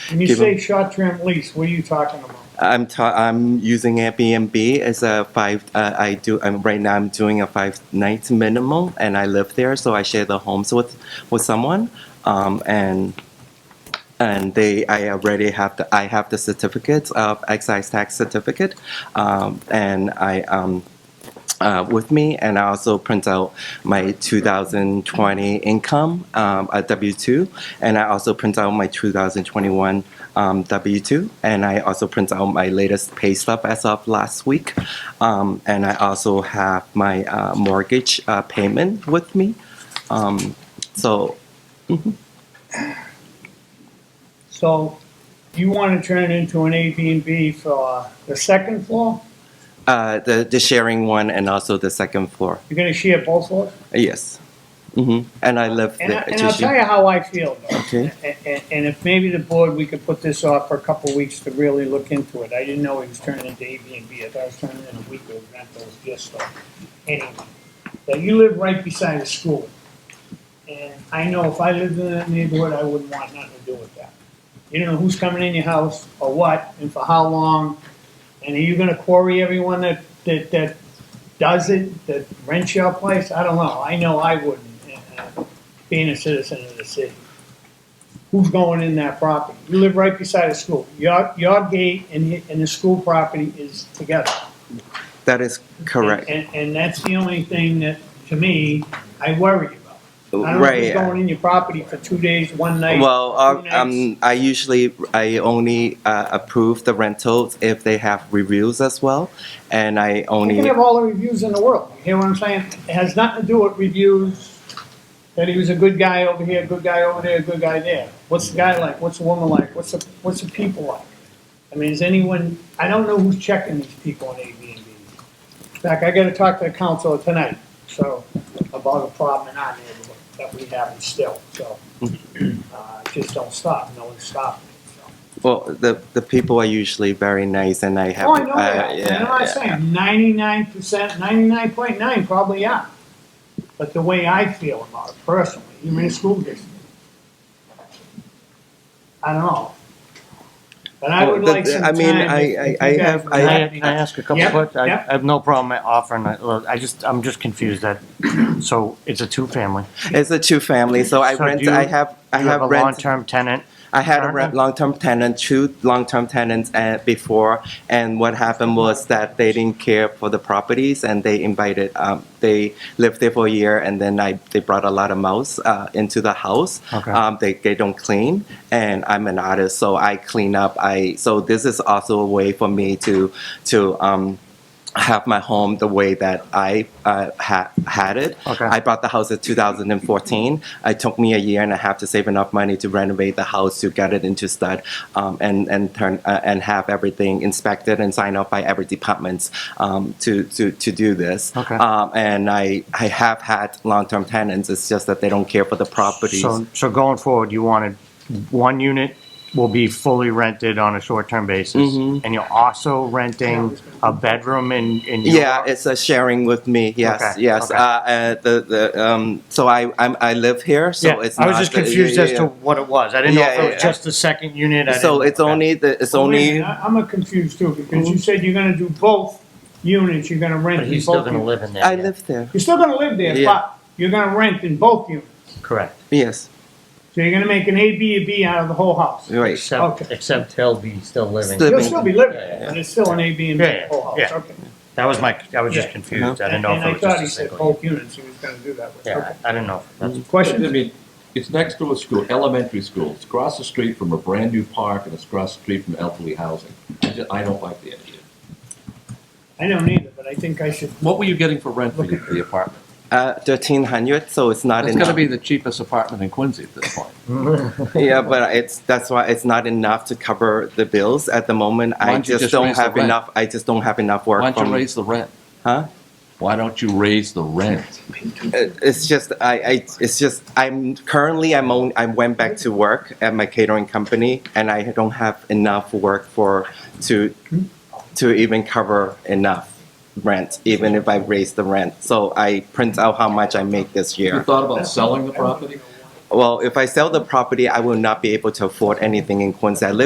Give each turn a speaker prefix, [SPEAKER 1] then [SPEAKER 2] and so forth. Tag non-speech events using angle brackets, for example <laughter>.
[SPEAKER 1] When you
[SPEAKER 2] give
[SPEAKER 1] say
[SPEAKER 2] them-
[SPEAKER 1] short-term lease, what are you talking about?
[SPEAKER 2] I'm ta- I'm using Airbnb as a five. Uh, I do. I'm, right now, I'm doing a five night minimum, and I live there, so I share the homes with with someone, um, and and they. I already have the. I have the certificate of excise tax certificate, um, and I um, uh, with me, and I also print out my 2020 income, um, a W 2, and I also print out my 2021 um, W 2, and I also print out my latest pay stub as of last week. Um, and I also have my uh, mortgage uh, payment with me. Um, so,
[SPEAKER 1] So you want to turn it into an Airbnb for the second floor?
[SPEAKER 2] uh, the, the sharing one and also the second floor.
[SPEAKER 1] You're going to share both floors?
[SPEAKER 2] Yes. hmm And I live
[SPEAKER 1] And, I,
[SPEAKER 2] there.
[SPEAKER 1] and I'll tell you how I feel. Though.
[SPEAKER 2] Okay.
[SPEAKER 1] And, and, and if maybe the board, we could put this off for a couple of weeks to really look into it. I didn't know it was turning into Airbnb. I thought it was turning into weekly rentals, just so. Anyway, now you live right beside a school. And I know if I lived in that neighborhood, I wouldn't want nothing to do with that. You don't know who's coming in your house or what and for how long. And are you gonna quarry everyone that, that, that does it, that rents your place? I don't know. I know I wouldn't, uh, uh, being a citizen of the city who's going in that property. You live right beside a school. Your, your gate and, the- and the school property is together.
[SPEAKER 2] That is correct.
[SPEAKER 1] And, and that's the only thing that, to me, I worry about. I don't know
[SPEAKER 2] right.
[SPEAKER 1] who's going in your property for two days, one night.
[SPEAKER 2] Well,
[SPEAKER 1] two
[SPEAKER 2] uh,
[SPEAKER 1] nights.
[SPEAKER 2] um, I usually, I only uh, approve the rentals if they have reviews as well, and I
[SPEAKER 1] You can
[SPEAKER 2] only,
[SPEAKER 1] have all the reviews in the world. You hear what I'm saying? It has nothing to do with reviews, that he was a good guy over here, good guy over there, good guy there. What's the guy like? What's the woman like? What's the, what's the people like? I mean, is anyone, I don't know who's checking these people on Airbnb. In fact, I gotta talk to the council tonight, so, about a problem in our neighborhood that we have still, so. <clears throat> Uh, it just don't stop, no one's stopping it, so.
[SPEAKER 2] well, the, the people are usually very nice, and I have.
[SPEAKER 1] Oh, I know
[SPEAKER 2] uh,
[SPEAKER 1] that.
[SPEAKER 2] yeah,
[SPEAKER 1] You know what I'm
[SPEAKER 2] yeah.
[SPEAKER 1] saying? Ninety-nine percent, ninety-nine point nine probably are. But the way I feel about it personally, even in a school district. I don't know. But I
[SPEAKER 2] Well,
[SPEAKER 1] would
[SPEAKER 2] the-
[SPEAKER 1] like some
[SPEAKER 2] I
[SPEAKER 1] time.
[SPEAKER 2] mean, I-
[SPEAKER 1] if-
[SPEAKER 2] I-
[SPEAKER 1] if you
[SPEAKER 2] I
[SPEAKER 1] guys
[SPEAKER 2] have-
[SPEAKER 1] would
[SPEAKER 2] I-
[SPEAKER 3] Can I,
[SPEAKER 1] like-
[SPEAKER 3] can I ask a couple
[SPEAKER 1] Yep,
[SPEAKER 3] of questions? I
[SPEAKER 1] yep.
[SPEAKER 3] I have no problem offering, it. Look, I just, I'm just confused that, so it's a two-family.
[SPEAKER 2] It's a two-family, so I
[SPEAKER 3] So
[SPEAKER 2] rent,
[SPEAKER 3] do you-
[SPEAKER 2] I have, I
[SPEAKER 3] You have
[SPEAKER 2] have
[SPEAKER 3] a
[SPEAKER 2] rent,
[SPEAKER 3] long-term tenant,
[SPEAKER 2] I had a re-
[SPEAKER 3] apartment?
[SPEAKER 2] long-term tenant, two long-term tenants uh, before, and what happened was that they didn't care for the properties, and they invited, um, they lived there for a year, and then I, they brought a lot of mouse uh, into the house.
[SPEAKER 3] Okay.
[SPEAKER 2] Um, they, they don't clean and i'm an artist so i clean up i so this is also a way for me to to um, have my home the way that i uh, ha- had it
[SPEAKER 3] Okay.
[SPEAKER 2] i bought the house in 2014 it took me a year and a half to save enough money to renovate the house to get it into stud um, and and turn uh, and have everything inspected and signed off by every department um, to, to to do this
[SPEAKER 3] Okay.
[SPEAKER 2] um, and i i have had long-term tenants it's just that they don't care for the properties
[SPEAKER 3] so, so going forward, you wanted, one unit will be fully rented on a short-term basis,
[SPEAKER 2] Mm-hmm.
[SPEAKER 3] and you're also renting a bedroom in, in your.
[SPEAKER 2] Yeah, it's a sharing with me. Yes,
[SPEAKER 3] Okay,
[SPEAKER 2] yes.
[SPEAKER 3] okay.
[SPEAKER 2] Uh, uh, the the um. So I I'm, I live here, so
[SPEAKER 3] Yeah,
[SPEAKER 2] it's.
[SPEAKER 3] I was
[SPEAKER 2] not
[SPEAKER 3] just
[SPEAKER 2] the- yeah,
[SPEAKER 3] confused
[SPEAKER 2] yeah,
[SPEAKER 3] as to
[SPEAKER 2] yeah.
[SPEAKER 3] what it was. I didn't know
[SPEAKER 2] Yeah,
[SPEAKER 3] if it
[SPEAKER 2] yeah,
[SPEAKER 3] was just the second unit. I
[SPEAKER 2] So
[SPEAKER 3] didn't-
[SPEAKER 2] it's only the it's
[SPEAKER 1] Well, wait a
[SPEAKER 2] only
[SPEAKER 1] minute, I- I'm a confused too, because you said you're gonna do both units, you're gonna rent
[SPEAKER 3] But
[SPEAKER 1] in both.
[SPEAKER 3] he's still gonna
[SPEAKER 1] units.
[SPEAKER 3] live in there.
[SPEAKER 2] I
[SPEAKER 3] yeah.
[SPEAKER 2] live there.
[SPEAKER 1] You're still gonna live there,
[SPEAKER 2] Yeah.
[SPEAKER 1] but you're gonna rent in both units.
[SPEAKER 3] Correct,
[SPEAKER 2] Yes,
[SPEAKER 1] So you're gonna make an A, B, and B out of the whole house.
[SPEAKER 2] right.
[SPEAKER 1] Okay.
[SPEAKER 3] except, except he'll be still living.
[SPEAKER 2] Still-
[SPEAKER 1] You'll still be living,
[SPEAKER 3] Yeah, yeah, yeah.
[SPEAKER 1] but it's still an A, B, and B,
[SPEAKER 3] Yeah, yeah,
[SPEAKER 1] whole house,
[SPEAKER 3] yeah.
[SPEAKER 1] okay.
[SPEAKER 3] That was my, I was just
[SPEAKER 1] Yeah.
[SPEAKER 3] confused. I didn't
[SPEAKER 1] And
[SPEAKER 3] know if
[SPEAKER 1] and
[SPEAKER 3] it
[SPEAKER 1] I
[SPEAKER 3] was just
[SPEAKER 1] thought
[SPEAKER 3] a
[SPEAKER 1] he said
[SPEAKER 3] single.
[SPEAKER 1] both units, he was gonna do that with.
[SPEAKER 3] Yeah, I I didn't know. if that's-
[SPEAKER 1] Okay.
[SPEAKER 4] I
[SPEAKER 1] Question,
[SPEAKER 4] mean, it's next to a school, elementary school. It's across the street from a brand-new park, and it's across the street from elderly housing. I ju- I don't like the idea.
[SPEAKER 1] I don't either, but I think I should,
[SPEAKER 4] What were you getting for rent for the- the apartment?
[SPEAKER 2] Uh, thirteen hundred. So it's not
[SPEAKER 4] It's
[SPEAKER 2] enough.
[SPEAKER 4] gonna be the cheapest apartment in Quincy at this point.
[SPEAKER 2] <laughs> yeah, but it's that's why it's not enough to cover the bills at the moment.
[SPEAKER 4] Why
[SPEAKER 2] I
[SPEAKER 4] don't you
[SPEAKER 2] just
[SPEAKER 4] just
[SPEAKER 2] don't
[SPEAKER 4] raise the
[SPEAKER 2] have
[SPEAKER 4] rent?
[SPEAKER 2] enough. I just don't have enough work.
[SPEAKER 4] Why don't
[SPEAKER 2] from-
[SPEAKER 4] you raise the rent?
[SPEAKER 2] Huh?
[SPEAKER 4] Why don't you raise the rent?
[SPEAKER 2] It- uh, it's just I, I it's just I'm currently I'm on, I went back to work at my catering company and I don't have enough work for to to even cover enough rent even if I raise the rent so I print out how much I make this
[SPEAKER 4] You
[SPEAKER 2] year
[SPEAKER 4] thought about selling the property?
[SPEAKER 2] well if I sell the property I will not be able to afford anything in Quincy I live